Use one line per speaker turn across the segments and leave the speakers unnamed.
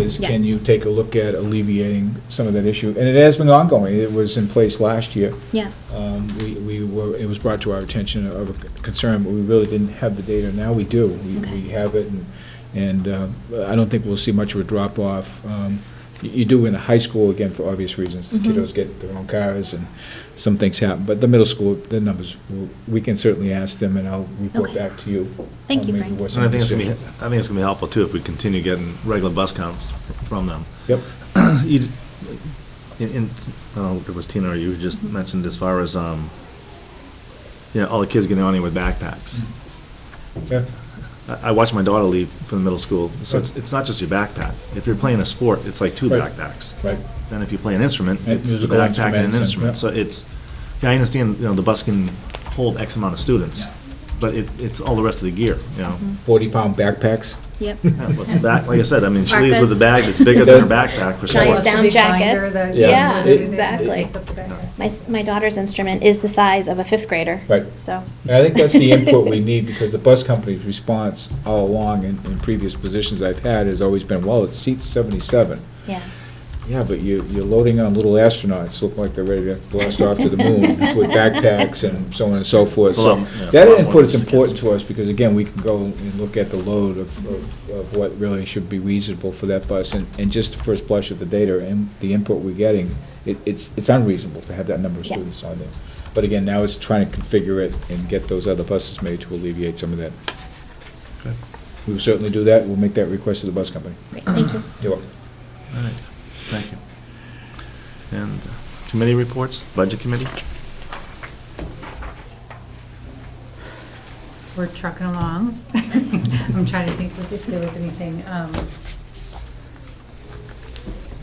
is,
Yeah.
can you take a look at alleviating some of that issue? And it has been ongoing, it was in place last year.
Yeah,
Um, We we were, it was brought to our attention of a concern, but we really didn't have the data, now we do. We
Okay.
we have it, and and uh, I don't think we'll see much of a drop-off. Um, You you do in the high school, again, for obvious reasons, The
Mhm.
kiddos get their own cars, and some things happen, but the middle school, the numbers, we'll- we can certainly ask them, and I'll report
Okay.
back to you.
Thank
on
you,
maybe
Frank.
what's
And I think it's gonna be, I
necessary.
think it's gonna be helpful too, if we continue getting regular bus counts from them.
Yep.
You, in, in- I don't know, if it was Tina or you who just mentioned as far as, um, you know, all the kids getting on here with backpacks.
Mm-hmm. Yeah.
I, I watched my daughter leave from the middle school, so it's,
Right.
it's not just your backpack. If you're playing a sport, it's like two
Right.
backpacks.
Right.
Then if you play an instrument,
And
it's the
musical
backpack and
instruments and-
an instrument.
yeah.
So it's, yeah, I understand, you know, the bus can hold X amount of students,
Yeah. Mm-hmm.
but it, it's all the rest of the gear, you know?
40-pound backpacks.
yep.
Yeah, What's the back, like I said, I mean, she leaves with a
Parkas.
bag that's bigger than her backpack for
Giant
sports.
down
Big binder
jackets.
that-
Yeah.
Yeah,
It-
exactly.
Yeah.
My, s- my daughter's instrument is the size of a fifth grader.
Right.
So.
And I think that's the input we need, because the bus company's response all along in, in previous positions I've had has always been, well, it seats seventy-seven.
Yeah.
Yeah, but you, you're loading on little astronauts, look like they're ready to blast off to the moon with backpacks and so on and so forth.
It's a
So
lot- yeah, it's a
that
lot more
input is
than just the
important
kids.
to us, because again, we can go and look at the load of, of- of what really should be reasonable for that bus, and, and just the first blush of the data and the input we're getting, it, it's, it's unreasonable to have that number of
Yeah.
students on there. But again, now it's trying to configure it and get those other buses made to alleviate some of that.
Okay.
We'll certainly do that, we'll make that request to the bus company.
Great, thank you.
You're welcome.
All right, thank you. And uh, committee reports, budget committee?
We're trucking along. I'm trying to think if there was anything, um,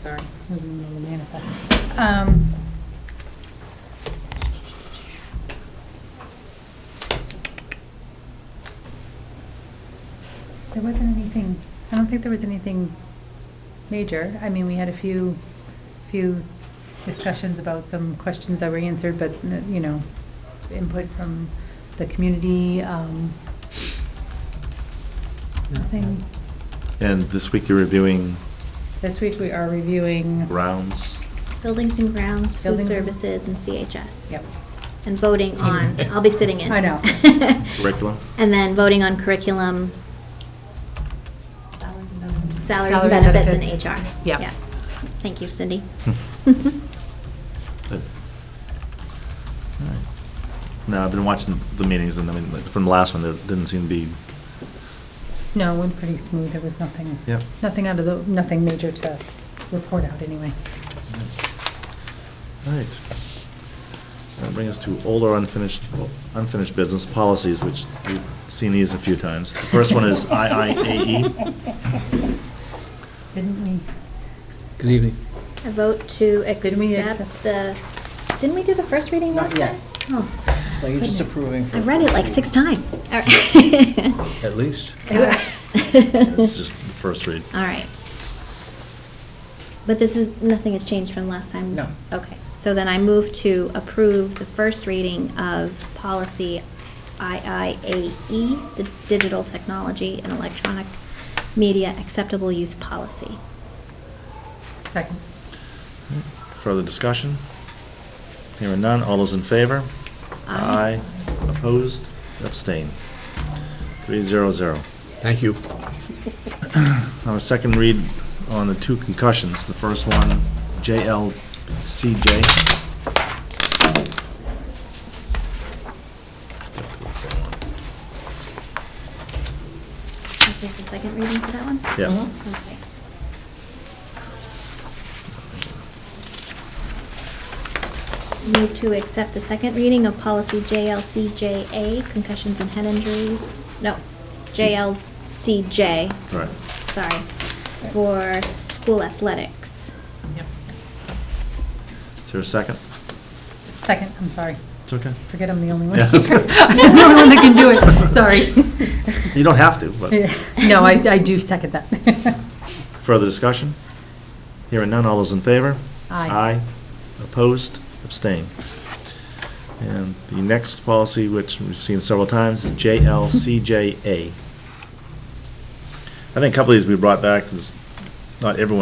sorry, I was in the middle of the manifest. Um, There wasn't anything, I don't think there was anything major. I mean, we had a few, few discussions about some questions that were answered, but, you know, input from the community, um, nothing.
And this week you're reviewing
This week we are reviewing.
rounds.
Buildings and grounds, food
Buildings and-
services, and CHS.
Yep.
And voting on, I'll be sitting in.
I know.
Curriculum?
And then voting on curriculum, salaries,
Salary
benefits, and
benefits.
HR.
Yep.
Yeah. Thank you, Cindy.
Good. All right. No, I've been watching the meetings and I mean, like, from the last one, there didn't seem to be,
No, it went pretty smooth. There was nothing,
Yep.
nothing out of the, nothing major to report out anyway.
all right. That brings us to older unfinished, unfinished business policies, which we've seen these a few times. The first one is IIAE. E.
Didn't we?
Good evening.
A vote to
Didn't we
accept the, didn't we do the first reading
Not
last
yet.
time? Oh,
So you're just
Goodness.
approving. for-
I've read it like six times. All right.
At least.
It's just the first read.
All right. But this is, nothing has changed from last time?
No.
Okay, so then I move to approve the first reading of policy IIAE, E, the digital technology and electronic media acceptable use policy.
Second.
Further discussion? Hearing none, all those in favor?
Aye.
Opposed, abstained. Three zero zero.
Thank you.
Now, a second read on the two concussions. The first one, JLCJ.
This is the second reading for that one?
Yeah.
Mm-hmm.
Okay. Move to accept the second reading of policy JLCJA, concussions and head injuries, no,
C-
JLCJ,
All right.
sorry, for school athletics.
Yep.
Is there a second?
Second, I'm sorry.
It's okay.
Forget I'm the only one. I'm
Yes.
the only one that can do it. Sorry.
You don't have to, but
No, I, I do second that.
further discussion? Hearing none, all those in favor?
Aye.
Aye. Opposed, abstained. And the next policy, which we've seen several times, is JLCJA. I think a couple of these we brought back, because not everyone